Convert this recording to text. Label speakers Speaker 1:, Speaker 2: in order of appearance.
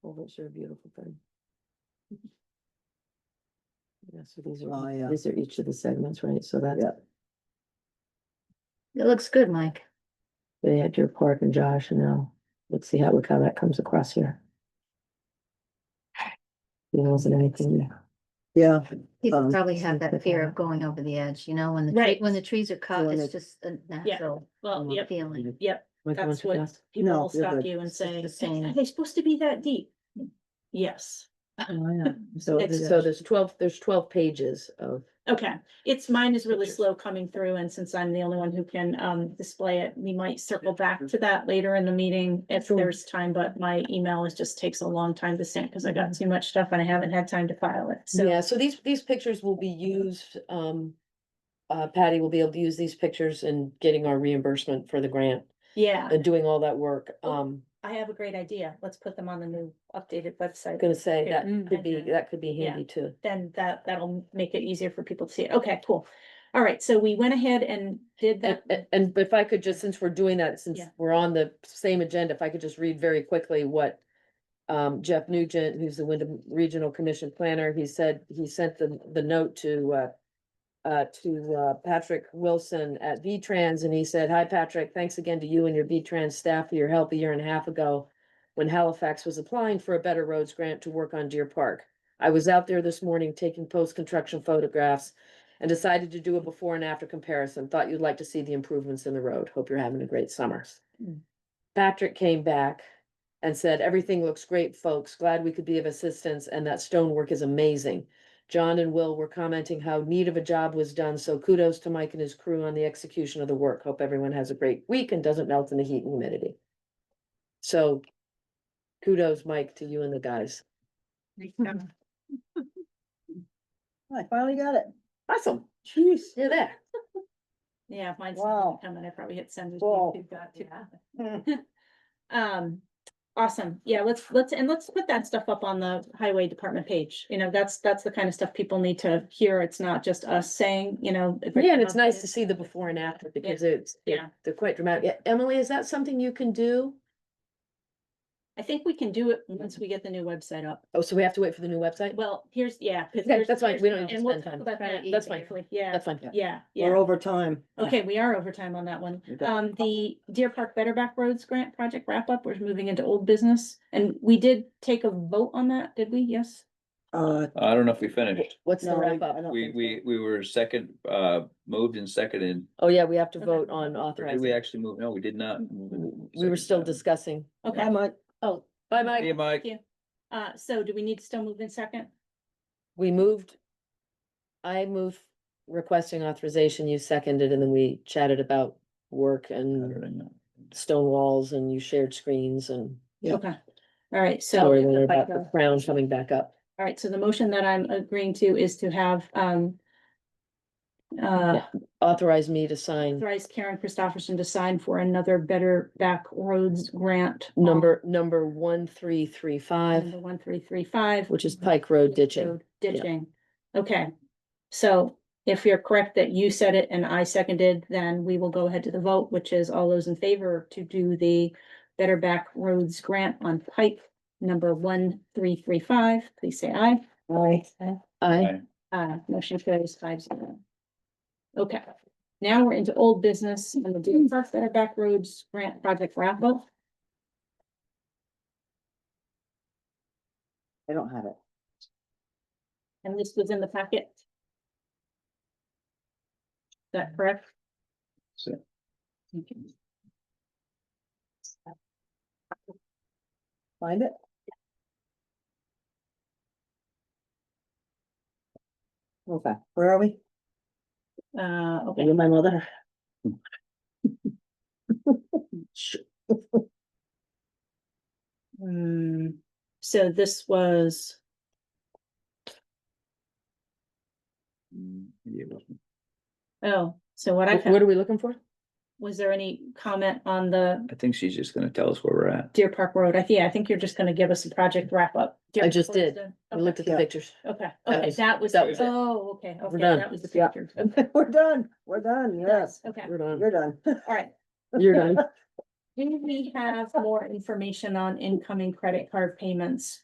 Speaker 1: Ovals are a beautiful thing. Yeah, so these
Speaker 2: Oh,
Speaker 1: are,
Speaker 2: yeah.
Speaker 1: these are each of the segments, right? So that's,
Speaker 2: Yeah.
Speaker 3: It looks good, Mike.
Speaker 1: they had your park and Josh and now let's see how, look how that comes across here. There wasn't anything there.
Speaker 2: Yeah,
Speaker 3: People
Speaker 2: Um,
Speaker 3: probably have that fear of going over the edge, you know, when the, tree-
Speaker 4: Right.
Speaker 3: when the trees are cut,
Speaker 2: When
Speaker 3: it's
Speaker 2: they-
Speaker 3: just a natural
Speaker 4: Well,
Speaker 2: Mm.
Speaker 4: yep,
Speaker 3: feeling.
Speaker 4: yep,
Speaker 1: Am I going
Speaker 4: That's
Speaker 1: too
Speaker 4: what-
Speaker 1: fast?
Speaker 4: people
Speaker 2: No,
Speaker 4: will
Speaker 2: you're
Speaker 4: stop
Speaker 2: good.
Speaker 4: you and
Speaker 3: It's just
Speaker 4: say,
Speaker 3: the same.
Speaker 4: are they supposed to be that deep? Yes,
Speaker 1: Oh, So,
Speaker 4: It's-
Speaker 1: th- so there's twelve, there's twelve pages of,
Speaker 4: okay, it's mine is really
Speaker 1: Pictures.
Speaker 4: slow coming through and since I'm the only one who can um display it, we might circle back to that later in the meeting if
Speaker 1: Sure.
Speaker 4: there's time, but my email is just takes a long time to send because I got too much stuff and I haven't had time to file it, so.
Speaker 1: yeah, so these, these pictures will be used, um. Uh, Patty will be able to use these pictures in getting our reimbursement for the grant
Speaker 4: Yeah,
Speaker 1: and doing all that work. Um,
Speaker 4: I have a great idea. Let's put them on the new updated
Speaker 1: I'm
Speaker 4: website.
Speaker 1: gonna say that
Speaker 2: Mm.
Speaker 1: could be, that could be
Speaker 4: Yeah.
Speaker 1: handy too.
Speaker 4: Then that, that'll make it easier for people to see it. Okay, cool. All right, so we went ahead and did
Speaker 1: And,
Speaker 4: that.
Speaker 1: and- and if I could just, since we're doing that, since
Speaker 4: Yeah.
Speaker 1: we're on the same agenda, if I could just read very quickly what. Um, Jeff Nugent, who's the Wyndham Regional Commission Planner, he said, he sent the, the note to, uh. Uh, to, uh, Patrick Wilson at V-Trans and he said, hi, Patrick, thanks again to you and your V-Trans staff for your help a year and a half ago. When Halifax was applying for a Better Roads grant to work on Deer Park. I was out there this morning taking post-construction photographs and decided to do a before and after comparison. Thought you'd like to see the improvements in the road. Hope you're having a great summer.
Speaker 4: Mm.
Speaker 1: Patrick came back and said, everything looks great, folks. Glad we could be of assistance and that stonework is amazing. John and Will were commenting how neat of a job was done, so kudos to Mike and his crew on the execution of the work. Hope everyone has a great week and doesn't melt in the heat and humidity. So kudos, Mike, to you and the guys.
Speaker 2: I finally got it.
Speaker 1: Awesome.
Speaker 2: Jeez.
Speaker 1: You're there.
Speaker 4: Yeah, mine's
Speaker 2: Wow.
Speaker 4: coming. I probably hit send. as
Speaker 2: Wow.
Speaker 4: well. We've got to- Um, awesome. Yeah, let's, let's, and let's put that stuff up on the highway department page. You know, that's, that's the kind of stuff people need to hear. It's not just us saying, you know.
Speaker 1: Yeah, and it's nice to see the before and after because it's, they're-
Speaker 4: Yeah.
Speaker 1: they're quite dramatic. Yeah, Emily, is that something you can do?
Speaker 4: I think we can do it once we get the new website up.
Speaker 1: Oh, so we have to wait for the new website?
Speaker 4: Well, here's, yeah. 'cause
Speaker 1: Okay,
Speaker 4: here's-
Speaker 1: that's fine.
Speaker 4: here's-
Speaker 1: We don't need to
Speaker 4: and we'll
Speaker 1: spend
Speaker 4: talk
Speaker 1: time.
Speaker 4: about
Speaker 3: Right,
Speaker 4: that
Speaker 1: that's fine.
Speaker 4: easily. Yeah,
Speaker 1: That's fine.
Speaker 4: yeah,
Speaker 2: We're
Speaker 4: yeah.
Speaker 2: over time.
Speaker 4: Okay, we are over time on that one.
Speaker 2: You got-
Speaker 4: Um, the Deer Park Better Back Roads Grant Project wrap up, we're moving into old business. And we did take a vote on that, did we? Yes?
Speaker 2: Uh,
Speaker 5: I don't know if we finished.
Speaker 1: What's the
Speaker 2: no, I-
Speaker 1: wrap
Speaker 2: I
Speaker 1: up?
Speaker 2: don't
Speaker 5: We,
Speaker 2: think so.
Speaker 5: we, we were second, uh, moved and seconded.
Speaker 1: Oh, yeah, we have to
Speaker 4: Okay.
Speaker 1: vote on
Speaker 5: Or did we
Speaker 1: authorizing.
Speaker 5: actually move? No, we did not. move and
Speaker 1: We were
Speaker 5: second.
Speaker 1: still discussing.
Speaker 2: Bye,
Speaker 4: Okay,
Speaker 2: Mike.
Speaker 1: Oh, bye,
Speaker 5: Hey,
Speaker 1: Mike.
Speaker 5: Mike.
Speaker 4: Yeah. uh, so do we need to still move in second?
Speaker 1: We moved. I moved requesting authorization. You seconded and then we chatted about work and stone walls and you shared screens and
Speaker 2: Yeah.
Speaker 4: Okay, all right, so, uh,
Speaker 1: sorry later
Speaker 4: if I
Speaker 1: about
Speaker 4: go-
Speaker 1: the crown coming back up.
Speaker 4: all right, so the motion that I'm agreeing to is to have, um, uh,
Speaker 1: Yeah. Authorize me to sign
Speaker 4: authorize Karen Christopherson to sign for another Better Back Roads Grant. on
Speaker 1: number, number one, three, three,
Speaker 4: Number
Speaker 1: five,
Speaker 4: one, three, three, five.
Speaker 1: which is Pike Road ditching.
Speaker 4: Road Ditching, okay. So if you're correct that you said it and I seconded, then we will go ahead to the vote, which is all those in favor to do the Better Back Roads Grant on Pike, number one, three, three, five, please say aye.
Speaker 2: Aye.
Speaker 1: I,
Speaker 5: Aye.
Speaker 4: Uh, motion carries five zero. Okay, now we're into old business and the Deer Park Better Back Roads Grant Project wrap up.
Speaker 2: I don't have it.
Speaker 4: And this was in the packet. Is that correct?
Speaker 5: So-
Speaker 2: Find it? Okay, where are we?
Speaker 4: Uh, okay.
Speaker 2: Maybe my mother.
Speaker 4: Hmm, so this was,
Speaker 5: Mm, yeah, it wasn't.
Speaker 4: oh, so what
Speaker 1: Wh-
Speaker 4: I,
Speaker 1: what
Speaker 4: found-
Speaker 1: are we looking for?
Speaker 4: was there any comment on the
Speaker 5: I think she's just gonna tell us where we're at.
Speaker 4: Deer Park Road? I think, I think you're just gonna give us a project wrap up. Deer
Speaker 1: I
Speaker 4: Park
Speaker 1: just
Speaker 4: Road's
Speaker 1: did.
Speaker 4: done?
Speaker 1: We looked at the
Speaker 2: Yeah.
Speaker 1: pictures.
Speaker 4: Okay, okay,
Speaker 1: That
Speaker 4: okay,
Speaker 1: was-
Speaker 4: that was,
Speaker 1: that was it.
Speaker 4: oh, okay, okay,
Speaker 1: done.
Speaker 4: that was the
Speaker 2: Yeah.
Speaker 4: picture. Okay,
Speaker 2: We're done, we're done, yes,
Speaker 4: Okay,
Speaker 1: You're done.
Speaker 2: you're done.
Speaker 4: all right.
Speaker 1: You're done.
Speaker 4: Do we have more information on incoming credit card payments?